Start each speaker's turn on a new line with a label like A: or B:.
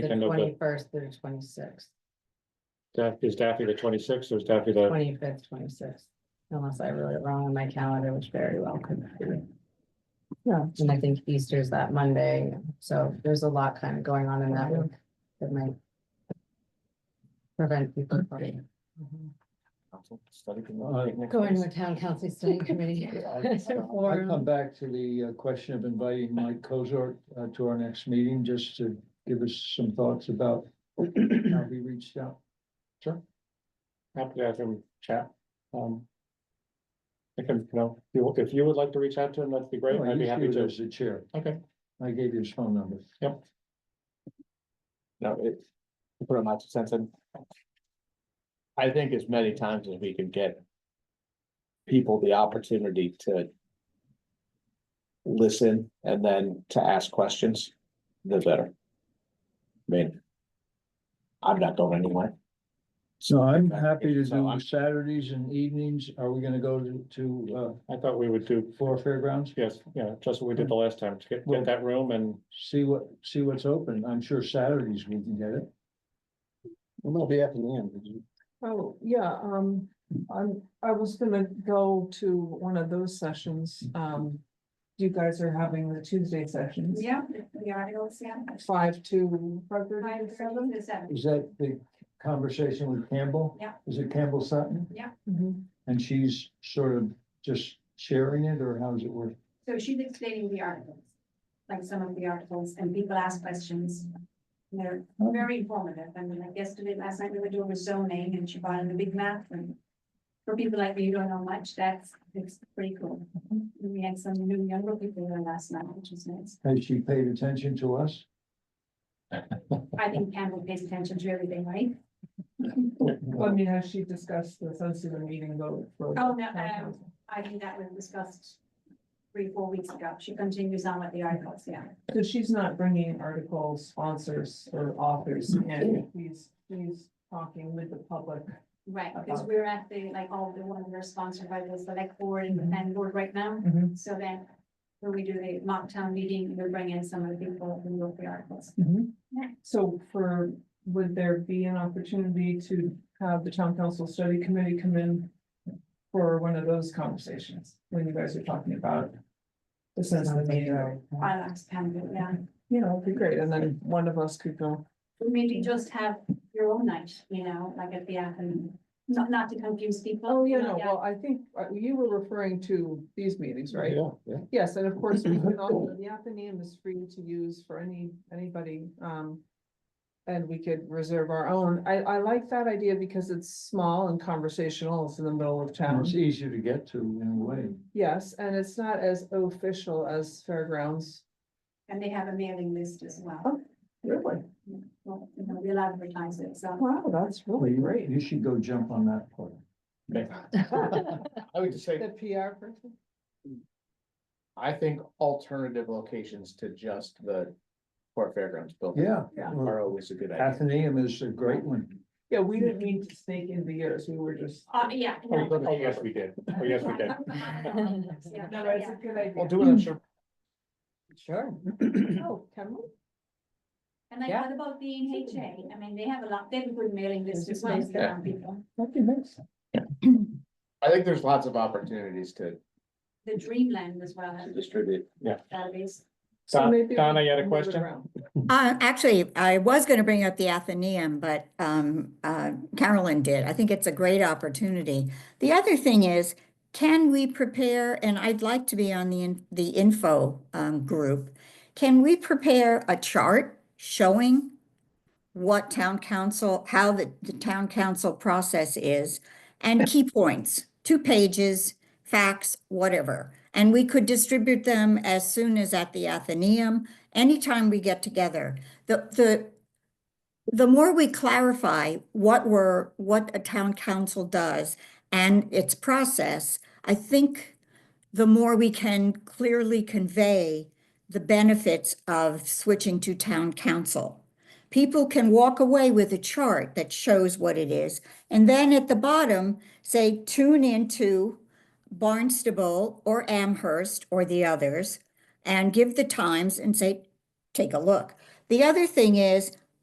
A: The
B: Weekend of the,
A: twenty-first through twenty-sixth,
B: Daff- uh, is Daffy the twenty-sixth or is Daffy the,
A: twenty-fifth, twenty-sixth, unless I wrote it wrong on my calendar, which very well could be. Yeah, and I think Easter's that Monday, so there's a lot kind of going on in that week that might prevent people from
B: Uh,
A: going to a town council study committee.
C: I come back to the uh, question of inviting Mike Kozart uh, to our next meeting, just to give us some thoughts about how he reached out.
B: happy to have him chat? Um. I can, you know, if you- if you would like to reach out to him, that'd be great.
C: I
B: I'd be
C: used
B: happy
C: you
B: to.
C: as the chair.
B: Okay.
C: I gave you his phone number.
D: No, it, to put a much sense in. I think as many times as we can get. People the opportunity to. Listen and then to ask questions, the better. I mean. I'm not going anywhere.
C: So I'm
D: happy to do
C: Saturdays and evenings. Are we gonna go to, to,
B: I thought we would do,
C: uh, four fairgrounds?
B: yes, yeah, just what we did the last time, to get, get that room and
C: See what, see what's open. I'm sure Saturdays we can get it.
D: We'll be at the end.
E: Oh, yeah, um, I'm, I was gonna go to one of those sessions, um. You guys are having the Tuesday sessions.
F: Yeah, the articles, yeah.
E: Five to.
F: Five thirty to seven.
C: Is that the conversation with Campbell?
F: Yeah.
C: Is it Campbell Sutton?
E: Mhm.
C: And she's sort of just sharing it, or how's it work?
F: So she's explaining the articles, like some of the articles, and people ask questions. And They're very informative. I mean, like yesterday, last night, we were doing zoning and she brought in the big map and. For people like me who don't know much, that's, it's pretty cool. And We had some new younger people there last night, which was nice.
C: Has she paid attention to us?
F: I think Campbell pays attention to everything, right?
E: Well, I mean, has she discussed the sensitive meeting vote? for-
F: Oh, no, um, I think that was discussed three, four weeks ago. She continues on with the articles, yeah.
E: So she's not bringing article sponsors or authors in, she's, she's talking with the public.
F: Right, because
E: about-
F: we're at the, like, all the ones that are sponsored by the select board and the
E: Mhm.
F: planning board right now.
E: Mm-hmm.
F: So then when we do the mock town meeting, we bring in some of the people who wrote the articles.
E: So for, would there be an opportunity to have the town council study committee come in? For one of those conversations, when you guys are talking about. The sense of the meeting,
F: I like to kind of, yeah.
E: you know, it'd be great, and then one of us could go,
F: Or Maybe just have your own night, you know, like at the afternoon, not, not to confuse people.
E: oh, you
F: know,
E: know,
F: yeah.
E: well, I think, uh, you were referring to these meetings, right?
D: Yeah, yeah.
E: Yes, and of course, we can also, the Athenaeum is free to use for any, anybody, um. And we could reserve our own. I, I like that idea because it's small and conversational. It's in the middle of
C: And
E: town.
C: it's easier to get to in a way.
E: Yes, and it's not as official as Fairgrounds.
F: And they have a mailing list as well.
E: Oh. Really?
F: Well, you know, we'll advertise it, so.
E: Wow, that's
C: Well,
E: really
C: you-
E: great.
C: You should go jump on that part.
D: I would just say,
E: The PR person?
D: I think alternative locations to just the Port Fairgrounds building
C: Yeah.
E: Yeah.
C: well,
D: are always a good idea.
C: Athenaeum is a great one.
E: Yeah, we didn't mean to sneak in the years. We were just.
F: Uh, yeah. no.
B: Oh, yes, we did. Oh, yes, we did.
F: Yeah,
E: No, no, it's
F: yeah.
E: a good idea.
D: We'll do it on sure.
A: Sure.
E: Oh, can we?
F: And like,
A: Yeah.
F: what about the NHA? I mean, they have a lot, they have a good mailing list as well,
E: nice.
F: so some people.
E: That'd be nice.
D: I think there's lots of opportunities to
F: The Dreamland as well,
D: to distribute.
F: that is.
E: So
B: Don-
E: maybe we
B: Donna, you had a
E: can move it
B: question?
E: around.
G: Uh, actually, I was gonna bring up the Athenaeum, but, um, uh, Carolyn did. I think it's a great opportunity. The other thing is, can we prepare, and I'd like to be on the, in- the info, um, group. Can we prepare a chart showing what town council, how the, the town council process is? And key points, two pages, facts, whatever. And we could distribute them as soon as at the Athenaeum anytime we get together, the, the, the more we clarify what we're, what a town council does and its process, I think the more we can clearly convey the benefits of switching to town council. People can walk away with a chart that shows what it is. And then at the bottom, say, tune into Barnstable or Amherst or the others and give the times and say, take a look. The other thing is,